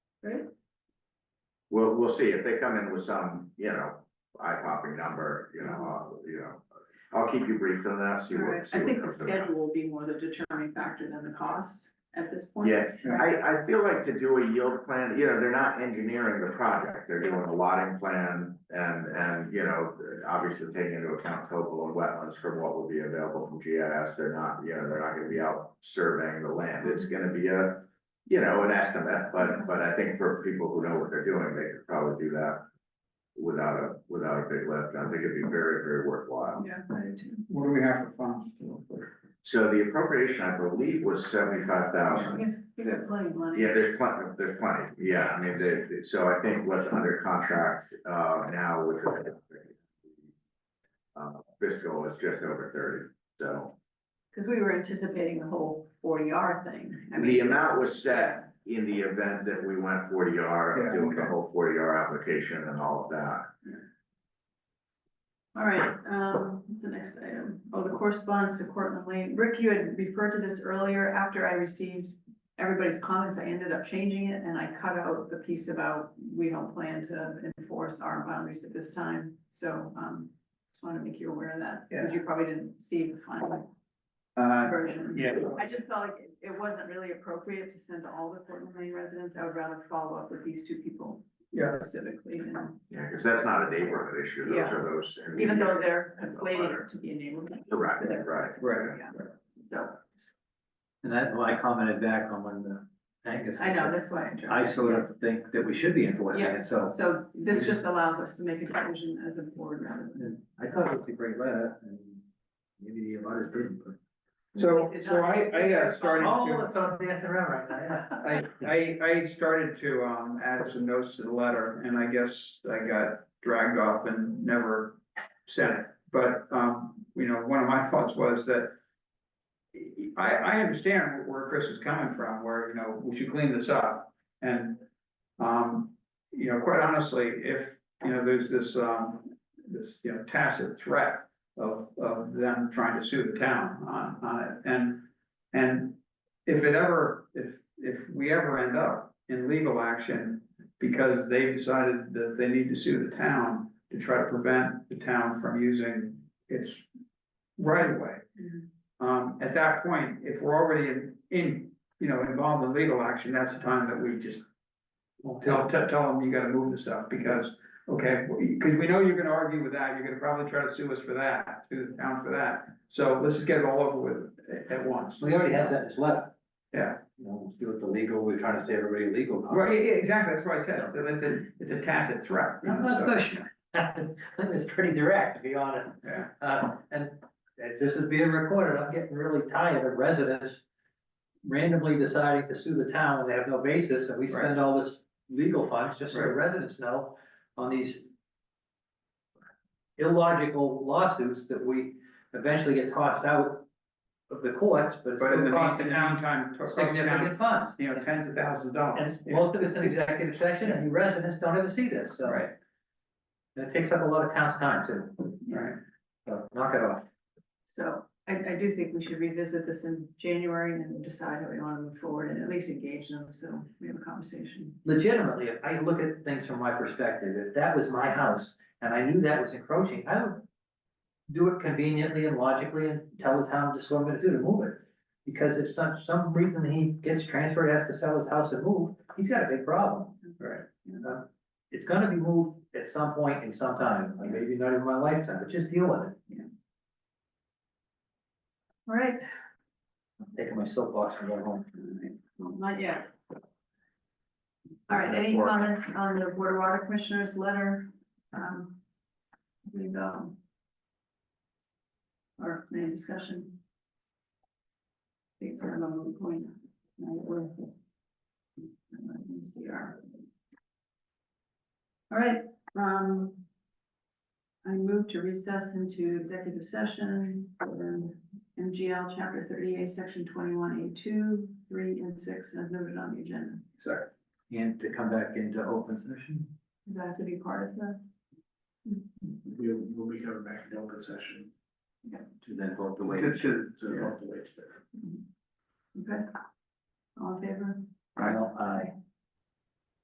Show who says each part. Speaker 1: We'll, we'll see if they come in with some, you know, eye-popping number, you know, uh, you know. I'll keep you briefed on that, see
Speaker 2: Mm-hmm. Right,
Speaker 1: what, see
Speaker 2: I
Speaker 1: what
Speaker 2: think the
Speaker 1: comes of that.
Speaker 2: schedule will be more the determining factor than the cost at this point.
Speaker 1: Yeah, I, I feel like to do a yield plan, you know, they're not engineering the project, they're doing a lotting plan and, and, you know, obviously taking into account topo and wetlands from what will be available from GIS, they're not, you know, they're not gonna be out surveying the land, it's gonna be a, you know, an estimate, but, but I think for people who know what they're doing, they could probably do that without a, without a big lift, I think it'd be very, very worthwhile.
Speaker 2: Yeah, I do too.
Speaker 3: What do we have for funds?
Speaker 1: So the appropriation, I believe, was seventy-five thousand.
Speaker 2: We have- we got plenty of money.
Speaker 1: Yeah, there's plenty, there's plenty, yeah, I mean, the, the- so I think what's under contract, uh, now with the uh, fiscal is just over thirty, so.
Speaker 2: Cause we were anticipating the whole forty R thing. I mean,
Speaker 1: The amount was set in the event that we went forty R,
Speaker 3: Yeah,
Speaker 1: doing the
Speaker 3: okay.
Speaker 1: whole forty R application and all of that.
Speaker 2: All right, um, what's the next item? Oh, the correspondence to Cortland Lane. Rick, you had referred to this earlier. After I received everybody's comments, I ended up changing it and I cut out the piece about we don't plan to enforce our boundaries at this time. So, um, just want to make you aware of that, because you probably didn't see the final
Speaker 3: Uh,
Speaker 2: version.
Speaker 3: yeah,
Speaker 2: I just felt like it- it wasn't really appropriate to send to all the Cortland Lane residents. I would rather follow up with these two people
Speaker 3: Yeah.
Speaker 2: specifically and
Speaker 1: Yeah, because that's not a neighborhood issue, those
Speaker 2: Yeah.
Speaker 1: are those.
Speaker 2: even though they're
Speaker 1: And the
Speaker 2: conflated
Speaker 1: letter.
Speaker 2: to be a neighborhood,
Speaker 1: Right, right.
Speaker 3: right.
Speaker 2: so.
Speaker 4: And that, well, I commented back on when the Angus.
Speaker 2: I know, that's why I tried.
Speaker 4: I sort of think that we should be enforcing
Speaker 2: Yeah.
Speaker 4: it, so
Speaker 2: So this just allows us to make a decision as a board rather than.
Speaker 4: and I thought it was a great letter and maybe the abutters didn't, but.
Speaker 3: So, so I, I uh, started
Speaker 4: Oh,
Speaker 3: to,
Speaker 4: it's on the SRL right now, yeah.
Speaker 3: I, I, I started to, um, add some notes to the letter, and I guess I got dragged off and never sent it. But, um, you know, one of my thoughts was that I, I understand where Chris is coming from, where, you know, we should clean this up. And, um, you know, quite honestly, if, you know, there's this, um, this, you know, tacit threat of, of them trying to sue the town on, on it. And, and if it ever, if, if we ever end up in legal action because they've decided that they need to sue the town to try to prevent the town from using its right of way.
Speaker 2: Mhm.
Speaker 3: Um, at that point, if we're already in, in, you know, involved in legal action, that's the time that we just tell, tell, tell them you gotta move this stuff because Okay, because we know you're gonna argue with that, you're gonna probably try to sue us for that, sue the town for that, so let's just get it all over with at- at once.
Speaker 4: So he already has that in his letter.
Speaker 3: Yeah.
Speaker 4: You know, let's do it the legal, we're trying to save everybody legal. costs.
Speaker 3: Right, yeah, yeah, exactly, that's what I said, so it's a, it's a tacit threat. you
Speaker 4: I'm
Speaker 3: know,
Speaker 4: not
Speaker 3: so-
Speaker 4: so sure. I think it's pretty direct, to be honest.
Speaker 3: Yeah,
Speaker 4: Uh, and if this is being recorded, I'm getting really tired of residents randomly deciding to sue the town when they have no basis, and we spend all this legal funds, just so the residents know, on these illogical lawsuits that we eventually get tossed out of the courts, but it's
Speaker 3: but in
Speaker 4: still
Speaker 3: the
Speaker 4: costing town
Speaker 3: meantime, to-
Speaker 4: significant funds.
Speaker 3: you know, tens of thousands of dollars.
Speaker 4: And
Speaker 3: yeah,
Speaker 4: most of it's in executive session, and the residents don't ever see this, so.
Speaker 3: Right,
Speaker 4: And it takes up a lot of town's time too,
Speaker 3: right,
Speaker 4: so knock it off.
Speaker 2: So I, I do think we should revisit this in January and decide how we want to move forward and at least engage them, so we have a conversation.
Speaker 4: legitimately, if I look at things from my perspective, if that was my house and I knew that was encroaching, I would do it conveniently and logically and tell the town just what I'm gonna do to move it. Because if some, some reason he gets transferred, has to sell his house and move, he's got a big problem.
Speaker 3: right.
Speaker 4: Uh, It's gonna be moved at some point in some time, like maybe not even my lifetime, but just deal with it.
Speaker 2: All right,
Speaker 4: I'm Taking my soapbox and going home.
Speaker 2: all right, well, not yet. All right, any comments on the Board of Water Commissioners letter? Um, we go. Or any discussion? I think it's kind of a moot point. now that we're- MCR. All right, um. I move to recess into executive session for MGL chapter thirty-eight, section twenty-one, A two, three, and six, as noted on the agenda.
Speaker 3: Sorry.
Speaker 4: And to come back into open session,
Speaker 2: Does that have to be part of the?
Speaker 5: We'll, we'll be coming back in open session.
Speaker 4: to then vote the way.
Speaker 3: Good, good.
Speaker 5: So we'll have to wait.
Speaker 2: Okay. All in favor?
Speaker 4: Well, I.